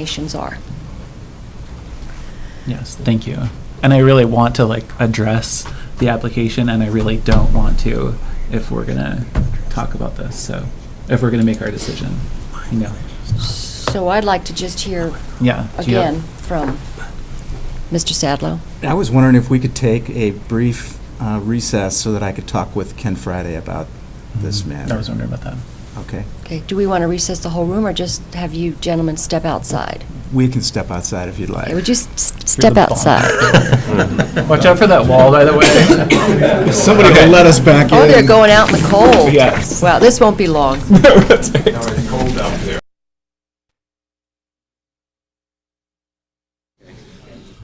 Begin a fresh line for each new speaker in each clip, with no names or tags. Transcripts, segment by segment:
recommendations are.
Yes, thank you. And I really want to like address the application and I really don't want to if we're gonna talk about this, so, if we're gonna make our decision, you know,
So I'd like to just hear
yeah. do you have-
again from Mr. Sadlow.
I was wondering if we could take a brief uh, recess so that I could talk with Ken Friday about this matter.
I was wondering about that.
Okay,
Okay, do we want to recess the whole room or just have you gentlemen step outside?
we can step outside if you'd
Okay,
like.
Would you s- s- step
the bond.
outside?
Watch out for that wall, by the way.
If somebody could let us back in.
Oh, they're going out in the cold.
Yes.
Wow, this won't be long.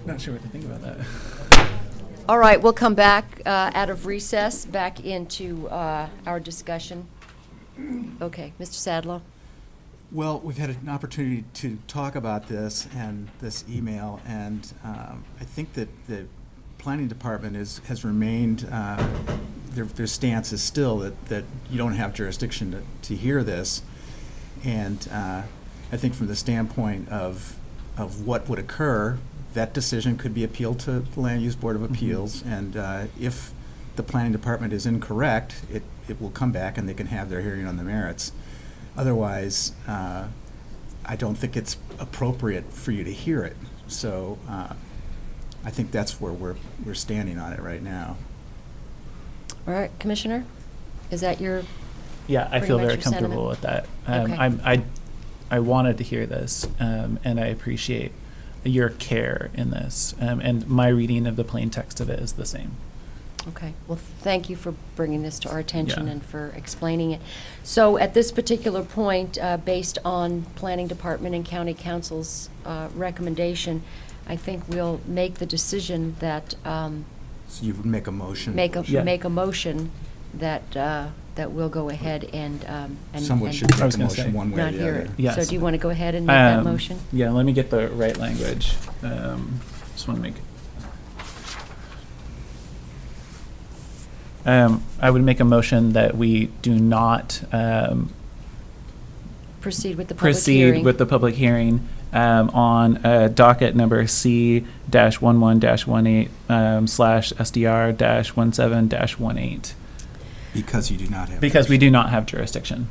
Not sure what to think about that.
All right, we'll come back uh, out of recess, back into uh, our discussion. Okay, Mr. Sadlow?
Well, we've had an opportunity to talk about this and this email, and um, I think that the planning department is, has remained, uh, their, their stance is still that, that you don't have jurisdiction to, to hear this. And uh, I think from the standpoint of, of what would occur, that decision could be appealed to the Land Use Board of Appeals. And uh, if the planning department is incorrect, it, it will come back and they can have their hearing on the merits. Otherwise, uh, I don't think it's appropriate for you to hear it. So uh, I think that's where we're, we're standing on it right now.
All right, Commissioner? Is that your,
Yeah, I
Pretty
feel
much
very
your
comfortable with that. Um,
Okay.
I'm, I, I wanted to hear this, um, and I appreciate your care in this. Um, and my reading of the plain text of it is the same.
okay, well, thank you for bringing this to our attention
Yeah.
and for explaining it. So at this particular point, uh, based on Planning Department and County Council's uh, recommendation, I think we'll make the decision that, um,
So you would make a motion.
make a,
Yeah.
make a motion that, uh, that we'll go ahead and. um, and-
Someone
and-
should
I was
make a
gonna say.
motion one way or
not
the
hear
other.
it. So
Yes.
do you want to go ahead and make that
Um,
motion?
Yeah, let me get the right language. Um, Just want to make. Um, I would make a motion that we do not um,
Proceed with the public hearing?
proceed with the public hearing um, on uh, docket number C-11-18 um, slash SDR-17-18,
Because you do not have.
because we do not have jurisdiction.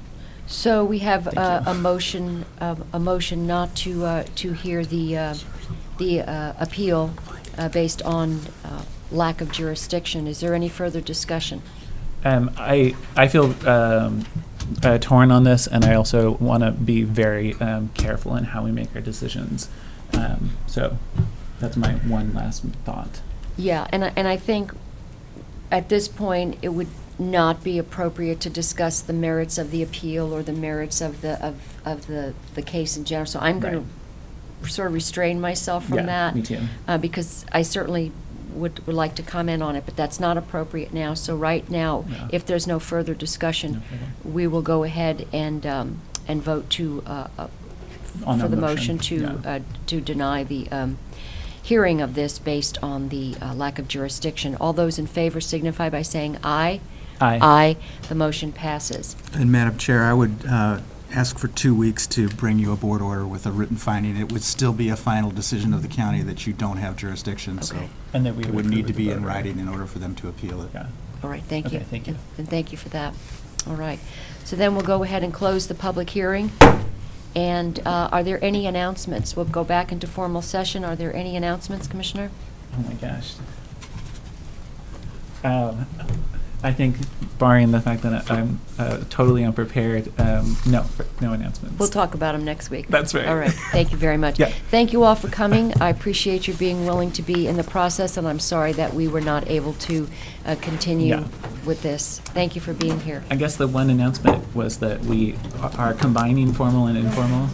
So we have
Thank
uh,
you.
a motion, uh, a motion not to, uh, to hear the, uh, the uh, appeal uh, based on uh, lack of jurisdiction. Is there any further discussion?
Um, I I feel um, uh, torn on this, and I also want to be very um, careful in how we make our decisions. Um, so that's my one last thought.
Yeah, and I, and I think at this point, it would not be appropriate to discuss the merits of the appeal or the merits of the, of, of the, the case in general. So I'm going to sort of restrain myself
Yeah,
from that.
me too.
uh, because I certainly would, would like to comment on it, but that's not appropriate now. So right now,
Yeah.
if there's no further
No
discussion,
problem.
we will go ahead and, um, and vote to, uh, uh,
On
for
the
the motion
motion,
to,
yeah.
uh, to deny the um, hearing of this based on the uh, lack of jurisdiction. All those in favor signify by saying aye.
Aye.
The motion passes.
And Madam Chair, I would uh, ask for two weeks to bring you a board order with a written finding. It would still be a final decision of the county that you don't have jurisdiction, so
Okay.
And that we
it
would
would
approve
need to
the
be
vote,
in
right?
writing in order for them to appeal it.
Yeah.
All right, thank you.
Okay, thank you.
And- And thank you for that. All right. So then we'll go ahead and close the public hearing. And uh, are there any announcements? We'll go back into formal session. Are there any announcements, Commissioner?
Oh my gosh. Um, I think, barring the fact that I'm uh, totally unprepared, um, no, no announcements.
We'll talk about them next week.
That's right.
All right, thank you very much.
Yeah.
Thank you all for coming. I appreciate you being willing to be in the process, and I'm sorry that we were not able to uh,
Yeah.
continue with this. Thank you for being here.
I guess the one announcement was that we are combining formal and informal.